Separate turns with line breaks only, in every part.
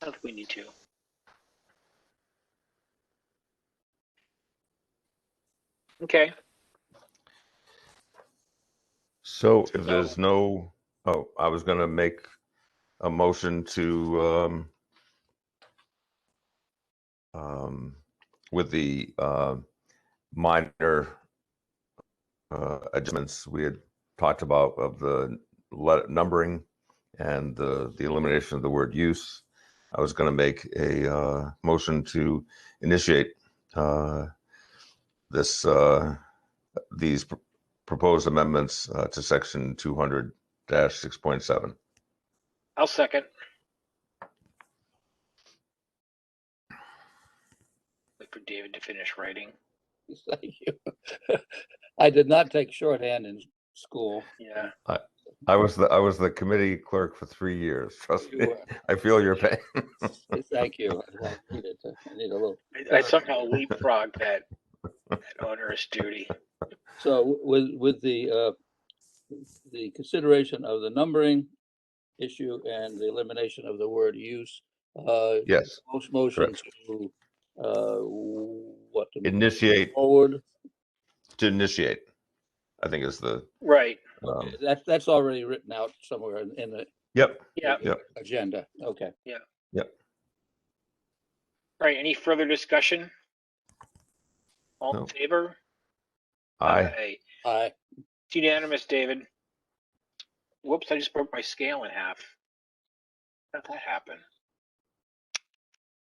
think we need to. Okay,
So if
So-
there's no, oh, I was gonna make a motion to, um, um, with the, uh, minor, uh, adjustments we had talked about of the le- numbering and the, the elimination of the word use. I was gonna make a, uh, motion to initiate, uh, this, uh, these pr- proposed amendments uh, to section two hundred six point seven.
I'll second. Wait for David to finish writing.
Thank you. I did not take shorthand in school.
Yeah,
I was the, I was the committee clerk for three years. Trust
You
me,
were.
I feel your pain.
Uh, Thank you. I need it. I need a little.
I- I somehow leapfrogged that, that onerous duty.
So with, with the, uh, the consideration of the numbering issue and the elimination of the word use, uh,
Yes,
most motions to, uh, what? to move
initiate,
Forward,
to initiate, I think is the,
Right,
um,
that's, that's already written out somewhere in, in the
yep,
yeah,
Yep.
agenda. Okay.
All right, any further discussion? All in
No.
favor?
I,
I,
It's unanimous, David. Whoops, I just broke my scale in half. How'd that happen?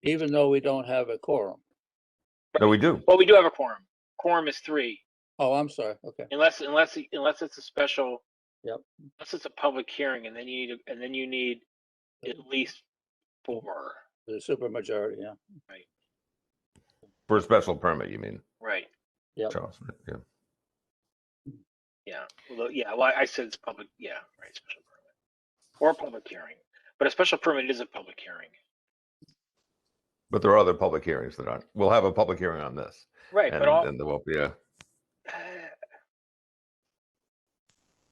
even though we don't have a quorum.
no, we do.
Well, we do have a quorum. Quorum is three,
Oh, I'm sorry. Okay.
unless, unless, unless it's a special.
Yep.
Unless it's a public hearing and then you need, and then you need at least four,
The supermajority, yeah.
For a special permit, you mean,
right?
Yep.
Charles? Yeah.
Yeah, although, yeah, well, I said it's public, yeah, right, special permit. Or public hearing, but a special permit is a public hearing.
But there are other public hearings that aren't, we'll have a public hearing on this.
Right,
And,
but all,
and there will be a,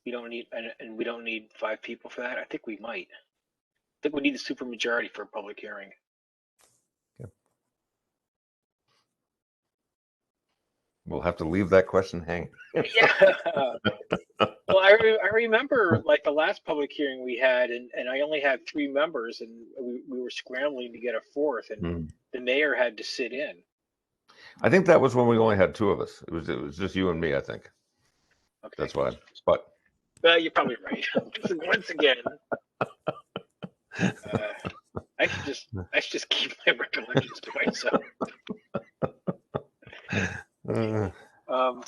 We don't need, and, and we don't need five people for that. I think we might. I think we need a supermajority for a public hearing.
we'll have to leave that question hanging.
Yeah. Well, I, re- I remember like the last public hearing we had and, and I only had three members and we, we were scrambling to get a fourth and
Hmm.
the mayor had to sit in.
I think that was when we only had two of us. It was, it was just you and me, I think.
Okay.
That's why, but
Well, you're probably right. Once again. uh, I should just, I should just keep my recollections to myself.
uh,
Um,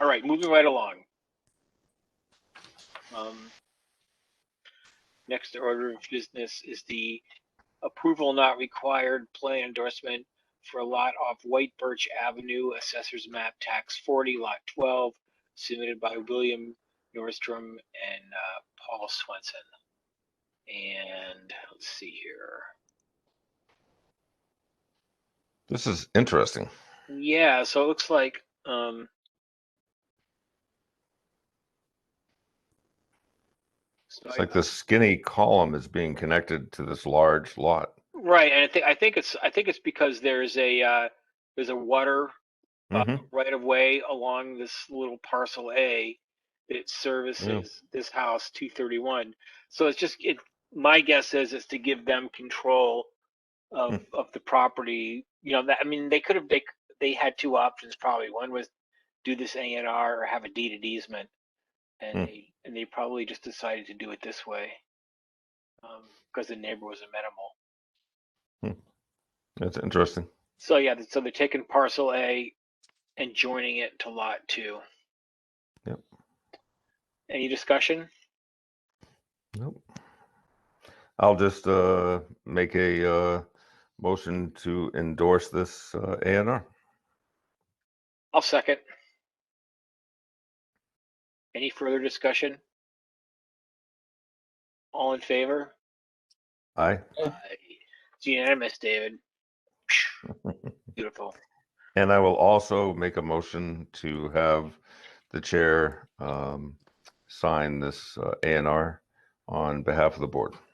all right, moving right along. Um, next order of business is the approval not required plan endorsement for a lot off White Birch Avenue, Assessor's Map Tax 40, Lot 12, submitted by William Nordstrom and uh, Paul Swenson. And let's see here.
this is interesting.
Yeah, so it looks like um so
It's
I-
like this skinny column is being connected to this large lot.
right, and I think I think it's I think it's because there's a uh there's a water uh,
Mhm.
right of way along this little parcel A that services this house 231. So it's just it my guess is is to give them control of of the property. You know that I mean they could have they c- they had two options probably. One was do this A and R or have a deed of easement, and
Hmm.
they and they probably just decided to do it this way because the neighbor was amenable.
That's interesting.
So yeah, th- so they're taking parcel A and joining it to lot two.
Yep.
Any discussion?
Nope. I'll just uh, make a uh, motion to endorse this uh, A and R.
I'll second. Any further discussion? All in favor?
Aye.
Aye. It's unanimous, David. Beautiful.
And I will also make a motion to have the uh, chair um, sign this A and R on behalf of the board.